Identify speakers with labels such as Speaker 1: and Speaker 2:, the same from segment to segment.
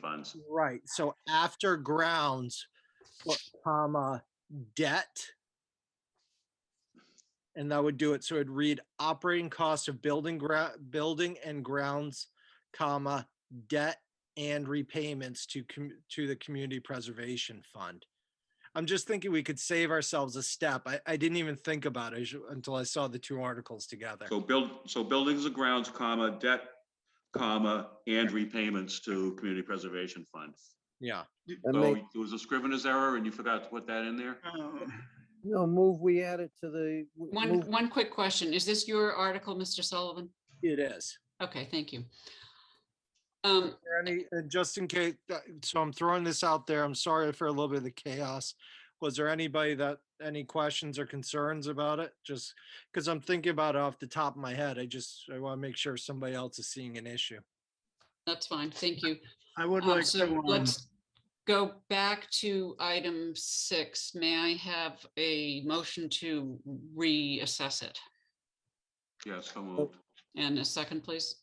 Speaker 1: grounds.
Speaker 2: Right, so after grounds, put comma, debt. And that would do it, so it'd read operating cost of building gra, building and grounds, comma, debt and repayments to, com- to the Community Preservation Fund. I'm just thinking we could save ourselves a step. I, I didn't even think about it until I saw the two articles together.
Speaker 1: So build, so buildings and grounds, comma, debt, comma, and repayments to community preservation fund.
Speaker 2: Yeah,
Speaker 3: I
Speaker 1: So
Speaker 3: make,
Speaker 1: it was a scrivener's error and you forgot to put that in there?
Speaker 4: Uh-huh.
Speaker 3: no, move, we add it to the. w-
Speaker 4: One,
Speaker 3: move-
Speaker 4: one quick question. Is this your article, Mr. Sullivan?
Speaker 2: it is.
Speaker 4: Okay, thank you. Um,
Speaker 2: there any, and just in case, uh, so I'm throwing this out there, I'm sorry for a little bit of the chaos. Was there anybody that, any questions or concerns about it? Just, because I'm thinking about it off the top of my head, I just, I want to make sure somebody else is seeing an issue.
Speaker 4: that's fine, thank you.
Speaker 5: I would
Speaker 4: Um,
Speaker 5: like
Speaker 4: So
Speaker 5: to, um,
Speaker 4: let's go back to item six. May I have a motion to reassess it?
Speaker 1: Yes, so moved.
Speaker 4: And a second, please?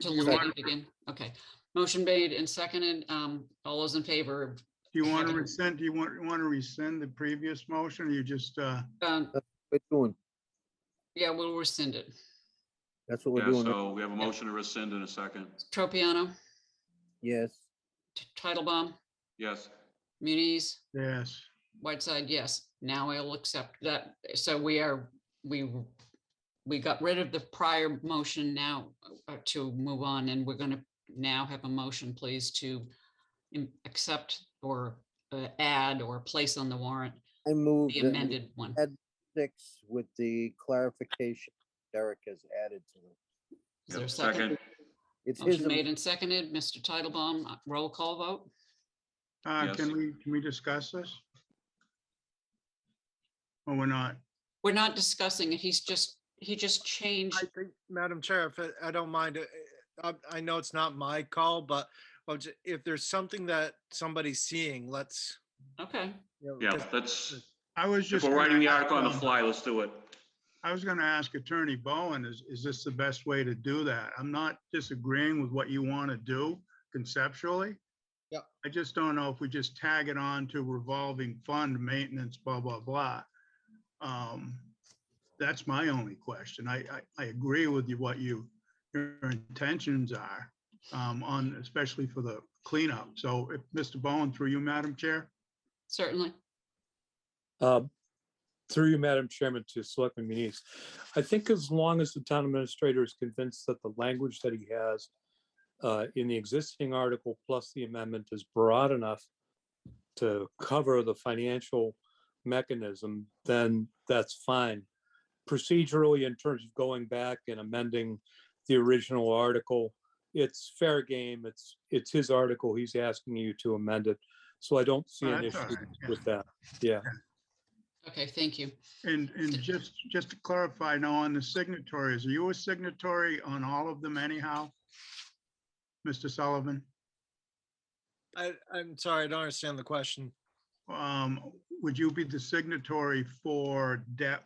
Speaker 4: To
Speaker 5: You
Speaker 4: look at
Speaker 5: want-
Speaker 4: it again, okay. Motion made and seconded. Um, all those in favor of
Speaker 5: do you want to
Speaker 4: second.
Speaker 5: rescind, do you want, want to rescind the previous motion? or You just, uh,
Speaker 4: Um,
Speaker 3: We're doing,
Speaker 4: yeah, we'll rescind it.
Speaker 3: that's what we're
Speaker 1: Yeah,
Speaker 3: doing,
Speaker 1: so we have a motion to rescind in a second.
Speaker 4: Tropiano,
Speaker 3: yes.
Speaker 4: T- Titlebaum,
Speaker 1: Yes,
Speaker 4: Muniz,
Speaker 5: yes,
Speaker 4: Whiteside, yes. Now I'll accept that. So we are, we, we got rid of the prior motion now uh, to move on and we're going to now have a motion, please, to im- accept or uh, add or place on the warrant
Speaker 3: I move
Speaker 4: the
Speaker 3: that we
Speaker 4: amended one.
Speaker 3: add six with the clarification Derek has added to it.
Speaker 4: Is there a
Speaker 1: Yep,
Speaker 4: second?
Speaker 1: second.
Speaker 3: It's his,
Speaker 4: Motion
Speaker 3: am-
Speaker 4: made and seconded. Mr. Titlebaum, uh, roll call vote?
Speaker 5: uh,
Speaker 1: Yes.
Speaker 5: can we, can we discuss this? Or we're not?
Speaker 4: We're not discussing it. He's just, he just changed.
Speaker 2: I think, Madam Chair, if I- I don't mind, uh, I, I know it's not my call, but well, j- if there's something that somebody's seeing, let's.
Speaker 4: Okay.
Speaker 2: you know,
Speaker 1: yeah,
Speaker 2: 'cause
Speaker 1: let's,
Speaker 5: I was
Speaker 1: if
Speaker 5: just.
Speaker 1: we're
Speaker 5: gonna
Speaker 1: writing the
Speaker 5: ask,
Speaker 1: article on the
Speaker 4: uh,
Speaker 5: um,
Speaker 1: fly, let's do it.
Speaker 5: I was gonna ask Attorney Bowen, is, is this the best way to do that? I'm not disagreeing with what you want to do conceptually.
Speaker 2: Yeah.
Speaker 5: I just don't know if we just tag it on to revolving fund maintenance, blah, blah, blah. Um, That's my only question. I, I, I agree with you, what you, your intentions are um, on, especially for the cleanup. So if Mr. Bowen, through you, Madam Chair?
Speaker 4: Certainly.
Speaker 6: Um, Through you, Madam Chairman, to Selectman Muniz. I think as long as the town administrator is convinced that the language that he has uh, in the existing article plus the amendment is broad enough to cover the financial mechanism, then that's fine. Procedurally, in terms of going back and amending the original article, it's fair game. It's, it's his article. He's asking you to amend it. So I don't see an
Speaker 5: Oh, That's all
Speaker 6: issue
Speaker 5: right, yeah.
Speaker 6: with that. Yeah.
Speaker 4: Okay, thank you.
Speaker 5: And, and just, just to clarify now on the signatories, are you a signatory on all of them anyhow? Mr. Sullivan,
Speaker 2: I, I'm sorry, I don't understand the question.
Speaker 5: um, would you be the signatory for debt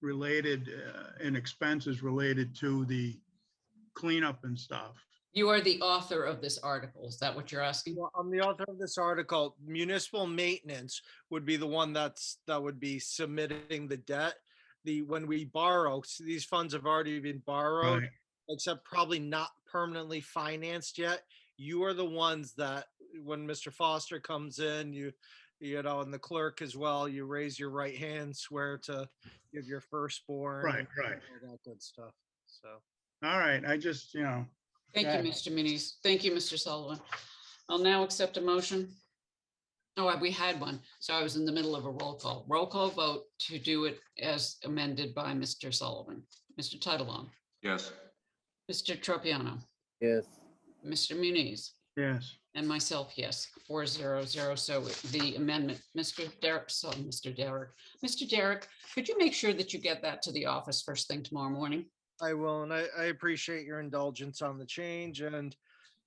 Speaker 5: related uh, and expenses related to the cleanup and stuff?
Speaker 4: You are the author of this article. Is that what you're asking?
Speaker 2: Well, I'm the author of this article. Municipal maintenance would be the one that's, that would be submitting the debt. The, when we borrow, s- these funds have already been borrowed,
Speaker 5: Right.
Speaker 2: except probably not permanently financed yet. You are the ones that, when Mr. Foster comes in, you, you know, and the clerk as well, you raise your right hand, swear to give your firstborn.
Speaker 5: Right,
Speaker 2: and
Speaker 5: right.
Speaker 2: All that good stuff, so.
Speaker 5: All right, I just, you know,
Speaker 4: Thank you, Mr. Muniz. Thank you, Mr. Sullivan. I'll now accept a motion. Oh, we had one. So I was in the middle of a roll call. Roll call vote to do it as amended by Mr. Sullivan. Mr. Titlebaum,
Speaker 1: Yes,
Speaker 4: Mr. Tropiano,
Speaker 3: yes,
Speaker 4: Mr. Muniz,
Speaker 5: yes,
Speaker 4: and myself, yes, four zero zero. So the amendment, Mr. Derek, so Mr. Derek, Mr. Derek, could you make sure that you get that to the office first thing tomorrow morning?
Speaker 2: I will, and I, I appreciate your indulgence on the change, and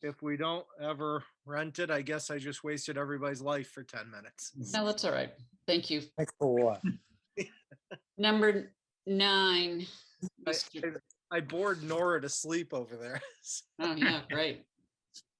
Speaker 2: if we don't ever rent it, I guess I just wasted everybody's life for ten minutes.
Speaker 4: No, that's all right. Thank you.
Speaker 6: Thanks for what?
Speaker 4: Number nine.
Speaker 2: I-
Speaker 4: Mr.
Speaker 2: I bored Nora to sleep over there.
Speaker 4: Oh, yeah, great.